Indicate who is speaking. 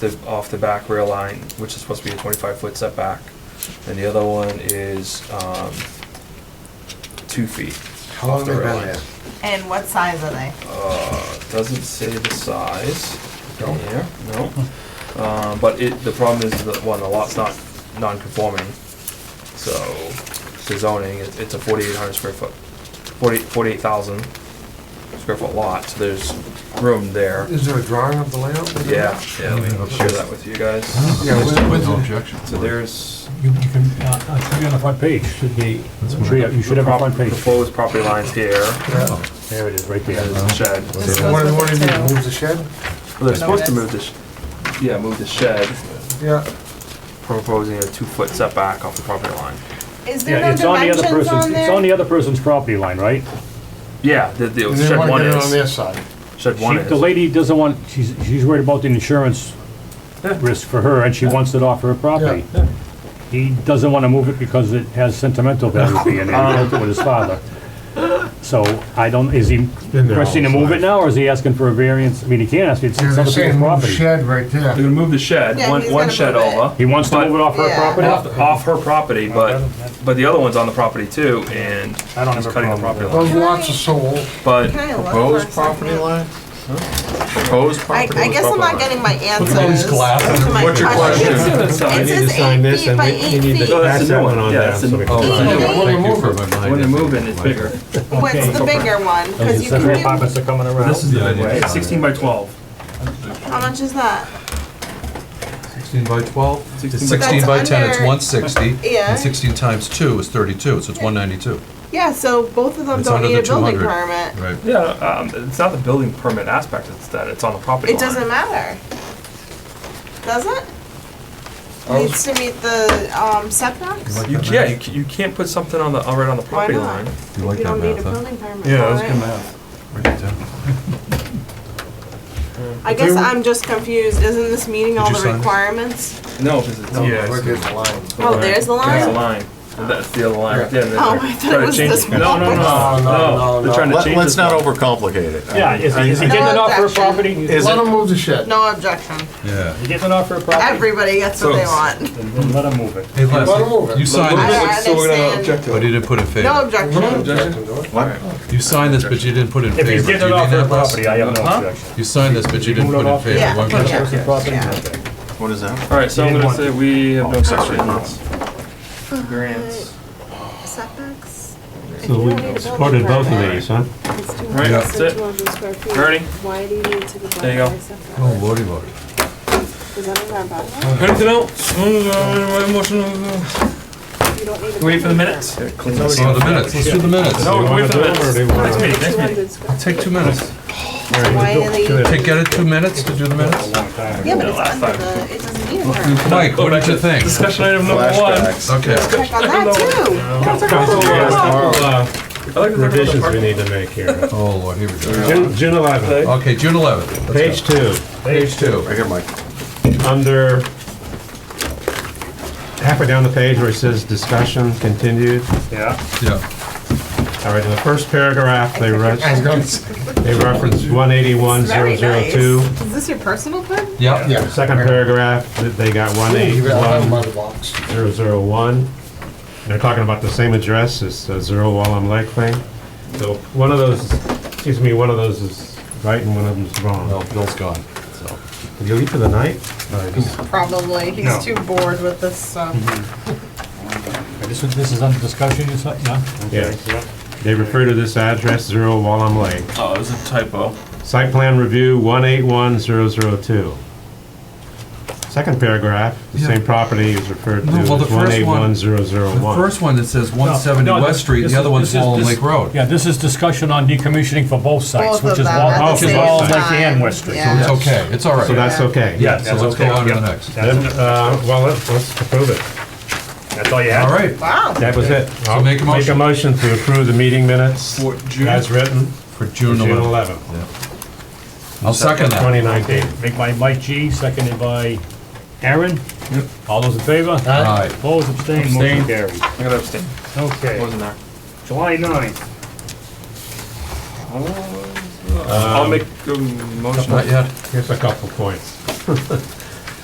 Speaker 1: the, off the back rail line, which is supposed to be a 25-foot setback, and the other one is um, two feet.
Speaker 2: How long
Speaker 1: off
Speaker 2: have
Speaker 1: the
Speaker 2: they
Speaker 1: rail
Speaker 2: been
Speaker 1: line.
Speaker 2: there?
Speaker 3: And what size are they?
Speaker 4: Oh,
Speaker 1: Uh, Doesn't say the size.
Speaker 2: No?
Speaker 1: Yeah, no. Um, But it, the problem is that, one, the lot's not non-conforming, so the zoning, it- it's a 4,800 square foot, 40 48,000 square foot lot, so there's room there.
Speaker 2: Is there a drawing of the layout?
Speaker 1: Yeah, yeah, let me share that with you guys.
Speaker 2: Yeah, where- where's
Speaker 4: no
Speaker 2: it?
Speaker 4: objections.
Speaker 1: So there's
Speaker 5: You you can, uh, uh, it should be on the front page, should be, I'm sure you you should have a front page.
Speaker 1: proposed property lines here,
Speaker 2: Yeah.
Speaker 5: There it is, right there.
Speaker 1: shed.
Speaker 3: This
Speaker 2: What,
Speaker 3: goes
Speaker 2: what do
Speaker 3: with
Speaker 2: you
Speaker 3: the
Speaker 2: mean,
Speaker 3: two.
Speaker 2: move the shed?
Speaker 1: Well, They're supposed to
Speaker 3: Notice.
Speaker 1: move the, sh- yeah, move the shed,
Speaker 2: Yeah,
Speaker 1: proposing a two-foot setback off the property line.
Speaker 3: Is there
Speaker 5: Yeah,
Speaker 3: no
Speaker 5: it's on the other
Speaker 3: dimensions
Speaker 5: person's,
Speaker 3: on
Speaker 5: it's on the
Speaker 3: there?
Speaker 5: other person's property line, right?
Speaker 1: Yeah, the, the
Speaker 2: and they
Speaker 1: shed
Speaker 2: want
Speaker 1: one
Speaker 2: to get it on their
Speaker 1: is,
Speaker 2: side.
Speaker 1: shed
Speaker 5: She,
Speaker 1: one
Speaker 5: the
Speaker 1: is.
Speaker 5: lady doesn't want, she's, she's worried about the insurance
Speaker 1: Yeah.
Speaker 5: risk for her, and she wants it off her property. He doesn't wanna move it because it has sentimental value being there, he built it with his father. So, I don't, is he
Speaker 4: been there all
Speaker 5: requesting to
Speaker 4: his
Speaker 5: move it
Speaker 4: life.
Speaker 5: now, or is he asking for a variance? I mean, he can't ask, it's
Speaker 2: Yeah,
Speaker 5: it's
Speaker 2: they're
Speaker 5: other people's
Speaker 2: saying move
Speaker 5: property.
Speaker 2: shed right there.
Speaker 1: They're gonna move the shed,
Speaker 3: Yeah,
Speaker 1: one,
Speaker 3: he's
Speaker 1: one
Speaker 3: gonna
Speaker 1: shed
Speaker 3: move it.
Speaker 1: over,
Speaker 5: He wants to
Speaker 1: But-
Speaker 5: move it off her
Speaker 3: Yeah.
Speaker 5: property?
Speaker 1: off, off her property, but, but the other one's on the property too, and
Speaker 5: I don't
Speaker 1: he's
Speaker 5: have a
Speaker 1: cutting the
Speaker 5: problem
Speaker 1: property
Speaker 5: with
Speaker 2: Those
Speaker 1: line.
Speaker 3: Can
Speaker 2: lots
Speaker 3: I-
Speaker 2: are sold.
Speaker 1: But
Speaker 3: Can I look for a
Speaker 4: Proposed
Speaker 3: second?
Speaker 4: property line? Proposed
Speaker 3: I,
Speaker 4: property?
Speaker 3: I guess I'm not getting my answers. to my
Speaker 4: What's your
Speaker 1: It's
Speaker 4: question?
Speaker 1: the other
Speaker 3: It
Speaker 1: side.
Speaker 4: need to
Speaker 3: says
Speaker 4: sign
Speaker 3: eight
Speaker 4: this
Speaker 3: feet
Speaker 4: and
Speaker 3: by
Speaker 4: we- we
Speaker 3: eight
Speaker 4: need to-
Speaker 1: No,
Speaker 3: feet.
Speaker 1: Oh, that's
Speaker 4: That's
Speaker 1: the
Speaker 4: that
Speaker 1: new
Speaker 4: one on
Speaker 1: one, yeah,
Speaker 4: there,
Speaker 1: that's the
Speaker 4: so
Speaker 1: new
Speaker 4: we
Speaker 1: one.
Speaker 4: can-
Speaker 3: Eight feet.
Speaker 4: Oh, Thank you for reminding
Speaker 1: When you
Speaker 4: us.
Speaker 1: move in, it's bigger.
Speaker 3: What's the bigger one? Because
Speaker 5: These
Speaker 3: you
Speaker 5: separate
Speaker 3: can do,
Speaker 5: apartments are coming around.
Speaker 1: This is the
Speaker 4: Yeah, I
Speaker 1: big
Speaker 4: didn't
Speaker 1: one, it's
Speaker 4: sign
Speaker 1: sixteen by twelve.
Speaker 3: how much is that?
Speaker 4: 16 by 12?
Speaker 1: Sixteen
Speaker 4: It's
Speaker 1: by
Speaker 4: 16 by 10, it's
Speaker 3: under-
Speaker 4: 160.
Speaker 3: Yeah.
Speaker 4: And 16 times 2 is 32, so it's 192.
Speaker 3: Yeah, so both of them
Speaker 4: It's
Speaker 3: don't
Speaker 4: under
Speaker 3: need a
Speaker 4: the
Speaker 3: building
Speaker 4: 200.
Speaker 3: permit.
Speaker 4: Right.
Speaker 1: Yeah, um, it's not the building permit aspect, it's that it's on the property
Speaker 3: It
Speaker 1: line.
Speaker 3: doesn't matter. Does it?
Speaker 4: Oh.
Speaker 3: Needs to meet the, um, setbacks?
Speaker 1: You, yeah, you, c- you can't put something on the, all right on the property
Speaker 3: not?
Speaker 1: line.
Speaker 4: You
Speaker 3: You
Speaker 4: like that
Speaker 3: don't need a
Speaker 4: math, huh?
Speaker 3: building permit. Yeah, that's good
Speaker 4: Write it down.
Speaker 3: I guess I'm just confused. Isn't this meeting all
Speaker 4: you
Speaker 3: the
Speaker 4: sign this?
Speaker 3: requirements?
Speaker 1: No, because it's.
Speaker 2: No, Where gets the line?
Speaker 3: Oh, there's the
Speaker 1: That's the
Speaker 3: line?
Speaker 1: line. That's the other line. right there. They're
Speaker 3: Oh, I thought
Speaker 1: trying
Speaker 3: it
Speaker 1: to
Speaker 3: was
Speaker 1: change
Speaker 3: this
Speaker 1: No, no, no,
Speaker 2: No, no,
Speaker 1: no.
Speaker 2: no,
Speaker 1: They're
Speaker 2: no.
Speaker 1: trying to change.
Speaker 6: Let, us
Speaker 1: this
Speaker 6: not
Speaker 1: one.
Speaker 6: overcomplicate it. I
Speaker 5: Yeah, is,
Speaker 6: mean,
Speaker 5: is he
Speaker 3: No
Speaker 5: getting it off her
Speaker 3: objection.
Speaker 5: property? Is
Speaker 2: Let them move the shed.
Speaker 3: No objection.
Speaker 4: Yeah.
Speaker 5: he getting it off her property?
Speaker 3: Everybody gets what they want.
Speaker 5: Then then let him move it.
Speaker 4: Hey,
Speaker 2: Let 'em move it.
Speaker 4: Leslie, you signed
Speaker 3: Let 'em move
Speaker 4: this,
Speaker 3: it.
Speaker 1: So we're gonna
Speaker 3: understand.
Speaker 1: object to
Speaker 4: but
Speaker 1: it.
Speaker 4: you didn't put in
Speaker 3: No
Speaker 4: favor.
Speaker 2: No
Speaker 3: objection.
Speaker 2: objection to it.
Speaker 6: what?
Speaker 4: You signed this, but you didn't put in favor.
Speaker 5: If he's
Speaker 4: Do you
Speaker 5: getting it
Speaker 4: mean
Speaker 5: off her
Speaker 4: that, Les?
Speaker 5: property, I have no
Speaker 1: Huh?
Speaker 5: objection.
Speaker 4: You signed this, but you
Speaker 5: Move
Speaker 4: didn't
Speaker 5: it
Speaker 4: put in
Speaker 5: off.
Speaker 4: favor.
Speaker 3: Yeah.
Speaker 4: Why
Speaker 5: Other
Speaker 4: would you-
Speaker 3: Yeah.
Speaker 5: person's property,
Speaker 3: Yeah.
Speaker 6: What is that?
Speaker 1: All right, so I'm
Speaker 5: didn't
Speaker 1: gonna
Speaker 5: want
Speaker 1: say
Speaker 5: to.
Speaker 1: we have no section eight. Grants.
Speaker 3: Setbacks?
Speaker 7: So we supported both of these, huh?
Speaker 1: All right, that's it. Ernie?
Speaker 8: Why do you need to be?
Speaker 1: There you go.
Speaker 4: Oh, lordy, lordy.
Speaker 8: Is that in our bylaw?
Speaker 1: Anything else? Mm, uh,
Speaker 8: You don't need to.
Speaker 1: Wait for the minutes.
Speaker 4: Oh, the minutes, let's do the minutes.
Speaker 1: No,
Speaker 7: wanna
Speaker 1: wait for the
Speaker 7: do it, or do you
Speaker 1: minutes.
Speaker 7: wanna-
Speaker 1: Next meeting, next meeting.
Speaker 8: 200 square.
Speaker 4: Take two minutes.
Speaker 3: Why are they?
Speaker 4: Take, get it two minutes to do the minutes?
Speaker 3: Yeah, but it's
Speaker 1: Last
Speaker 3: under
Speaker 1: time.
Speaker 3: the, it doesn't need a permit.
Speaker 4: Mike, what did you think?
Speaker 1: Discussion item number one.
Speaker 6: Flashbacks.
Speaker 4: Okay.
Speaker 3: Check on that too.
Speaker 1: I
Speaker 5: Uh,
Speaker 1: like the
Speaker 7: Revisions we need to make here.
Speaker 4: Oh, Lord, here we go.
Speaker 7: June June 11th,
Speaker 4: Okay, June 11th. Let's
Speaker 7: page
Speaker 4: go.
Speaker 7: two,
Speaker 4: Page two.
Speaker 6: Right here, Mike.
Speaker 7: under, halfway down the page where it says discussion continued.
Speaker 5: Yeah.
Speaker 4: Yeah.
Speaker 7: All right, in the first paragraph, they re-
Speaker 2: I was gonna say,
Speaker 7: they reference 181002.
Speaker 3: Is this your personal pen?
Speaker 4: Yeah.
Speaker 2: yeah.
Speaker 7: Second paragraph, th- they got
Speaker 2: You got another
Speaker 7: 181001.
Speaker 2: mother box.
Speaker 7: They're talking about the same address as uh, Zero Wallam Lake thing. So one of those, excuse me, one of those is right and one of them's wrong.
Speaker 4: Well, Oh, Bill's gone, so.
Speaker 7: Did you leave for the night? I
Speaker 3: Probably. He's too bored with this uh, stuff.
Speaker 1: Mm-hmm.
Speaker 5: This is, this is under discussion, you said, yeah?
Speaker 7: Yes. They refer to this address, Zero Wallam Lane.
Speaker 1: Oh, it was a typo.
Speaker 7: Site plan review, 181002. Second paragraph, the same property is referred to
Speaker 4: No,
Speaker 7: as
Speaker 4: well, the first one-
Speaker 7: 181001.
Speaker 4: The first one that says
Speaker 5: No,
Speaker 4: 170
Speaker 5: no,
Speaker 4: West
Speaker 5: this-
Speaker 4: Street,
Speaker 5: this
Speaker 4: the other
Speaker 5: is-
Speaker 4: one's
Speaker 5: this is-
Speaker 4: Wallen
Speaker 5: this-
Speaker 4: Lake Road.
Speaker 5: Yeah, this is discussion on decommissioning for both sites,
Speaker 3: Both of
Speaker 5: which is
Speaker 3: them at
Speaker 5: Wall,
Speaker 3: the
Speaker 5: which is
Speaker 7: same
Speaker 5: Wall Lake
Speaker 3: time.
Speaker 5: and West Street.
Speaker 3: Yeah.
Speaker 4: It's okay, it's all right.
Speaker 7: So that's okay?
Speaker 5: Yeah,
Speaker 4: So
Speaker 5: that's
Speaker 4: let's go
Speaker 5: okay,
Speaker 4: on to
Speaker 5: yeah.
Speaker 4: the next.
Speaker 7: Then, uh, well, let's let's approve it.
Speaker 5: That's all you
Speaker 4: All
Speaker 5: have?
Speaker 4: right.
Speaker 3: Wow.
Speaker 7: That was it. I'll
Speaker 4: make a
Speaker 7: Make a
Speaker 4: motion.
Speaker 7: motion to approve the meeting minutes
Speaker 1: For June.
Speaker 7: as written,
Speaker 4: For June
Speaker 7: June
Speaker 4: 11th.
Speaker 7: 11th,
Speaker 4: I'll second that.
Speaker 7: 2019.
Speaker 5: Made by Mike G, seconded by Aaron. All those in favor?
Speaker 4: Aye.
Speaker 5: Opposed, abstained, motion
Speaker 1: Abstained.
Speaker 5: carried.
Speaker 1: I'm gonna abstain.
Speaker 5: Okay,
Speaker 1: Wasn't there.
Speaker 5: July 9th.
Speaker 1: I'll make a motion.
Speaker 4: Not yet.
Speaker 7: Here's a couple points.